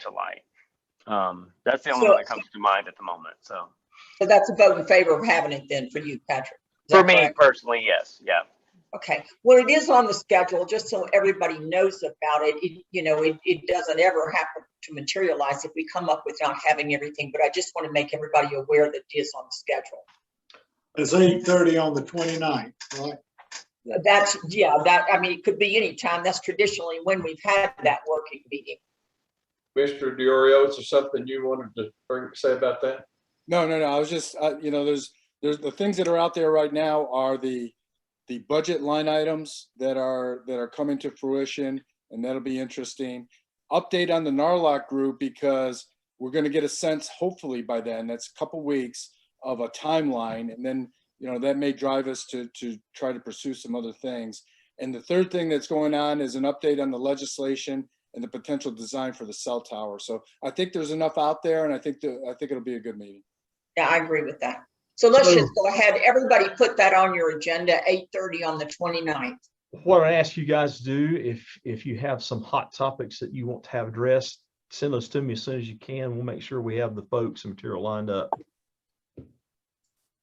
to light. Um, that's the only So- one that comes to mind at the moment. So So that's a vote in favor of having it then for you, Patrick. Is that for me correct? personally, yes, yeah. Okay, well, it is on the schedule, just so everybody knows about it. It- You know, it, it doesn't ever happen to materialize if we come up with not having everything, but I just want to make everybody aware that it is on the schedule. It's eight thirty on the 29th, right? That's, yeah, that, I mean, it could be any time. That's traditionally when we've had that working meeting. Mr. Diorio, is there something you wanted to bring, say about that? No, no, no. I was just, uh, you know, there's, there's the things that are out there right now are the, the budget line items that are, that are coming to fruition, and that'll be interesting. Update on the Narlock group because we're gonna get a sense, hopefully by then, that's a couple weeks of a timeline, and then, you know, that may drive us to, to try to pursue some other things. And the third thing that's going on is an update on the legislation and the potential design for the cell tower. So I think there's enough out there, and I think, the- I think it'll be a good meeting. Yeah, I agree with that. So let's So- just go ahead. Everybody put that on your agenda, 8:30 on the 29th. What I ask you guys to do, if, if you have some hot topics that you want to have addressed, send those to me as soon as you can. We'll make sure we have the folks and material lined up.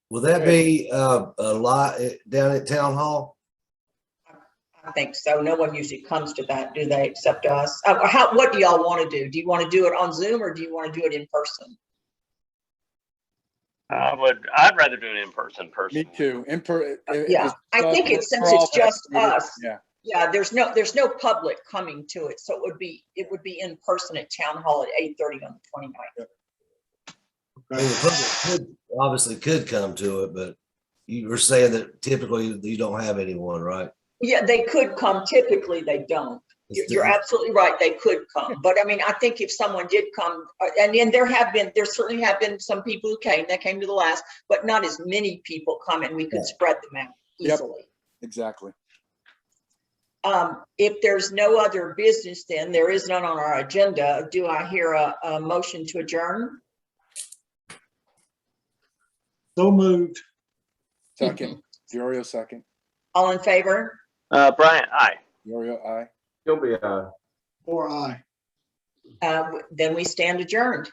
Will that be uh, a lot down at Town Hall? I think so. No one usually comes to that, do they, except us? Uh, How, what do y'all want to do? Do you want to do it on Zoom or do you want to do it in person? I would, I'd rather do it in person Me personally. too. In per- it- Yeah, it's- I think it's, since it's just us, Yeah, yeah, there's no, there's no public coming to it, so it would be, it would be in person at Town Hall at 8:30 on the 29th. I mean, the public could- Obviously could come to it, but you were saying that typically you don't have anyone, right? Yeah, they could come. Typically, they don't. You're- You're absolutely right. They could come. But I mean, I think if someone did come, uh, and then there have been, there certainly have been some people who came, that came to the last, but not as many people come and we could spread them out Yep. easily. exactly. Um, if there's no other business, then there is none on our agenda. Do I hear a, a motion to adjourn? So moved. Second, Mm-hmm. Diorio second, All in favor? Uh, Brian, aye. Diorio aye. You'll be, uh, Or I. Uh, w- then we stand adjourned.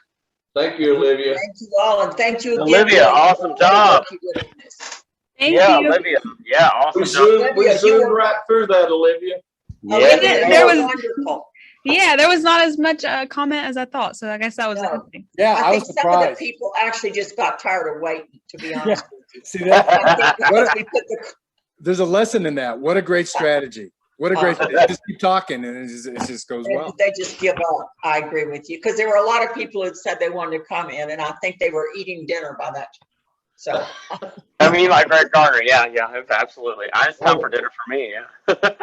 thank you, Olivia. Thank you all and thank you again. Olivia, Bill. awesome job. Thank you, goodness. Thank yeah, you. Olivia. Yeah, awesome. We job. zoomed, we Olivia, you zoomed were- right through that, Olivia. Yeah. Olivia, Olivia, there was- Wonderful. Yeah, there was not as much uh, comment as I thought, so I guess that was a No. good thing. Yeah, I I was think some of the surprised. people actually just got tired of waiting, to be honest. with you. See that? I think because we put the- There's a lesson in that. What a great strategy. What a Oh. great, just keep talking and it just, it just goes well. They just give up. I agree with you, because there were a lot of people that said they wanted to come in, and I think they were eating dinner by that. time. So, I mean, like Greg Garner. Yeah, yeah, it's absolutely. I, it's time for dinner for me. Yeah. Good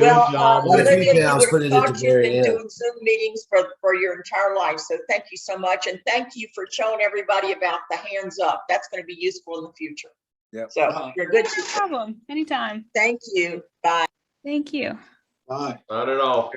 well, uh, job. Well, I Olivia, think you now would it's put it have at the thought you've very been end. doing Zoom meetings for, for your entire life, so thank you so much, and thank you for showing everybody about the hands up. That's going to be useful in the future. Yep. So, you're good. No problem. Anytime. Thank you. Bye. Thank you. Aye. Not at all.